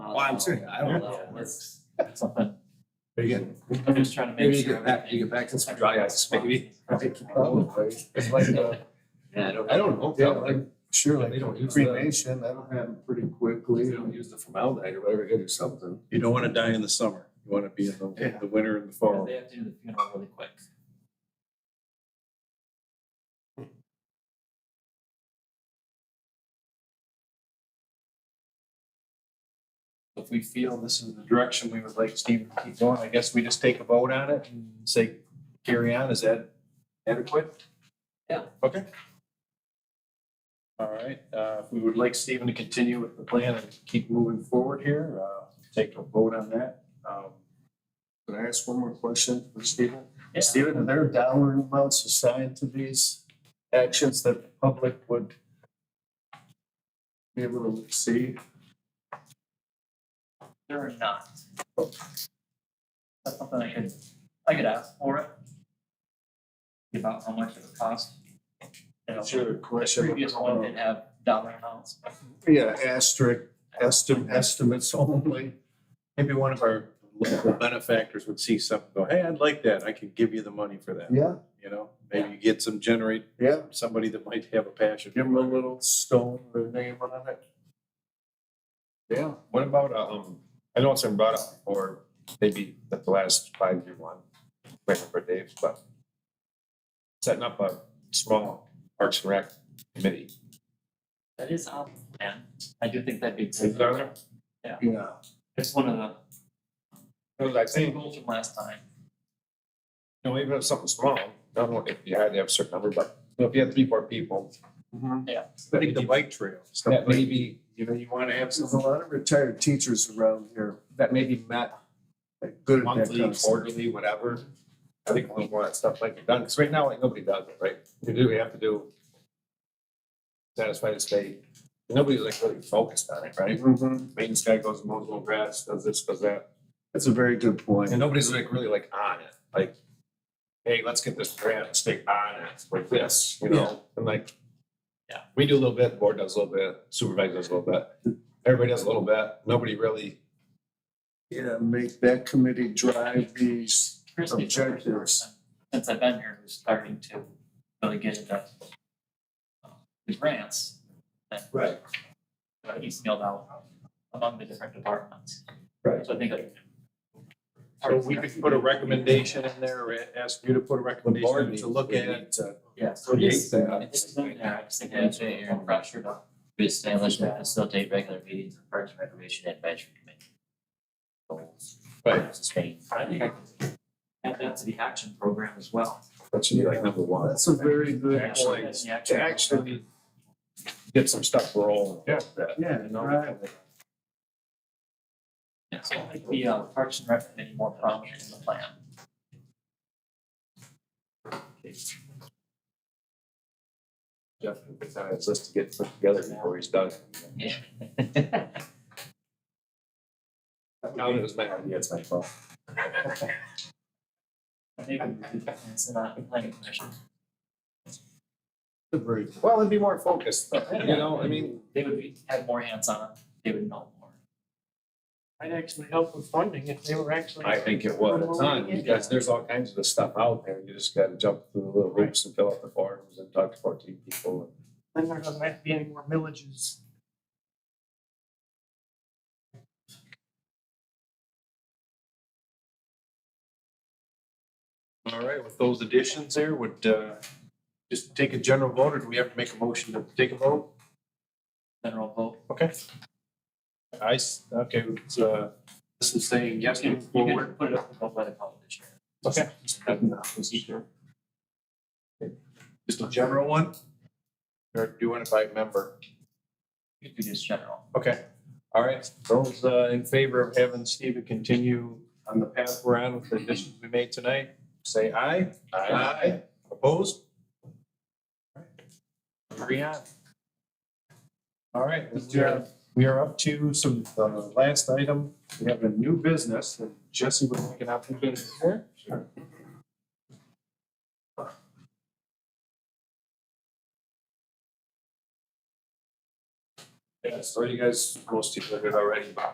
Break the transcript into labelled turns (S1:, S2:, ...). S1: don't
S2: Well, I'm
S1: know.
S2: serious, I don't know how it
S1: It's-
S2: But again,
S1: I'm just trying to make
S2: maybe you
S1: sure.
S2: get back, you get back to some dry ice, maybe.
S3: It's like, uh,
S1: Yeah, I don't-
S3: I don't know, yeah, like, sure,
S2: They don't
S3: like
S2: use
S3: cremation, that'll happen pretty quickly.
S2: You don't use the formaldehyde or whatever, you do something.
S4: You don't want to die in the summer. You want to be in the,
S3: Yeah.
S4: the winter and the
S1: because
S4: fall.
S1: they have to do the funeral really quick.
S4: If we feel this is the direction we would like Steve to keep going, I guess we just take a vote on it and say, carry on. Is that adequate?
S1: Yeah.
S4: Okay. All right, uh, if we would like Stephen to continue with the plan and keep moving forward here, uh, take a vote on that. Um,
S3: Can I ask one more question for Stephen?
S1: Yeah.
S3: Stephen, are there dollar amounts assigned to these actions that the public would be able to see?
S1: They're not. That's something I could, I could ask for it. About how much it would cost. You know,
S3: your
S1: The previous one didn't have dollar amounts.
S4: Oh.
S3: Yeah, asterisk, estim- estimates only.
S4: Maybe one of our local benefactors would see something, go, hey, I'd like that. I could give you the money for that,
S3: Yeah,
S4: you know? Maybe you get some, generate
S3: yeah.
S4: somebody that might have a passion.
S3: Give them a little stone, their name on it. Yeah.
S5: What about, um, I know it's been brought up before, maybe at the last five year one, waiting for Dave, but setting up a small Parks and Rec committee.
S1: That is on the plan. I do think that'd be
S5: Is
S1: good.
S5: there there?
S3: Yeah.
S1: It's one of the
S5: Because I think,
S1: goals from last time.
S5: you know, even if something small, I don't know if you had to have a certain number, but you know, if you had three, four people,
S4: Like Mm-hmm. the bike trail. stuff
S5: that
S4: like
S5: maybe, you know, you wanna have
S3: There's a
S5: something
S3: lot of retired teachers around here
S5: that maybe met
S3: that good at that
S5: monthly,
S3: kind of stuff.
S5: quarterly, whatever. I think a little more of that stuff might be done, because right now, like, nobody does it, right? You do, you have to do satisfy the state. Nobody's like really focused on it, right?
S3: Mhm.
S5: Maintenance guy goes and mows little grass, does this, does that,
S3: That's a very good point.
S5: and nobody's like really like on it, like, hey, let's get this grant, stick on it, like this, you know, and like.
S1: Yeah.
S5: We do a little bit, board does a little bit, supervisor does a little bit, everybody does a little bit, nobody really
S3: Yeah, make that committee drive these.
S1: Chris is the first
S3: Objectives.
S1: person Since I've been here, who's starting to really get into uh, the grants that
S3: Right.
S1: uh, he's mailed out among the different departments.
S3: Right.
S1: So I think like.
S4: So we could put a recommendation in there, or ask you to put a recommendation to look at. it.
S1: Yeah, so it
S3: Yeah,
S1: is,
S3: exactly.
S1: it's just in there, I just think it's a little pressure to.
S6: to establish and facilitate regular meetings of Parks and Recreation Advisory Committee. Goals.
S5: Right.
S6: Sustain.
S1: I think I could add that to the action program as well.
S5: That should be like number one.
S3: That's a very good
S5: Actually,
S3: point.
S1: The action
S5: To
S1: program.
S5: actually get some stuff rolling. Yeah.
S3: Yeah, right.
S1: Yeah, so I think the uh, Parks and Rec committee more prominent in the plan.
S5: Jeff, it's on his list to get put together before he's done.
S6: Yeah.
S5: No, it was my idea, it's my fault.
S1: Maybe it's not the planning commission.
S3: That's a very
S5: Well, it'd be more focused, you know, I mean,
S1: They would be, have more hands on, it. they would know more.
S7: I'd actually help with funding if they were actually.
S5: I think it was a ton, because there's all kinds of stuff out there, you just gotta jump through the little hoops and fill out the forms and talk to fourteen people.
S7: Then there doesn't have to be any more millages.
S4: All right, with those additions there, would, uh, just take a general vote, or do we have to make a motion to take a vote?
S1: General vote.
S4: Okay. I, s- okay, it's, uh, this is saying yes
S1: You
S4: moving
S1: could- you
S4: forward.
S1: could put it up above by the public this year.
S4: Okay. Just a general one? Or doing it by member?
S1: You could do just general.
S4: Okay, all right, those, uh, in favor of having Steven continue on the path we're on with the additions we made tonight, say aye. Aye. Opposed? Agree on. All right, we are, we are up to some, the last item, we have a new business, and Jesse would like an opportunity here.
S5: Yeah, so you guys, most people did already, but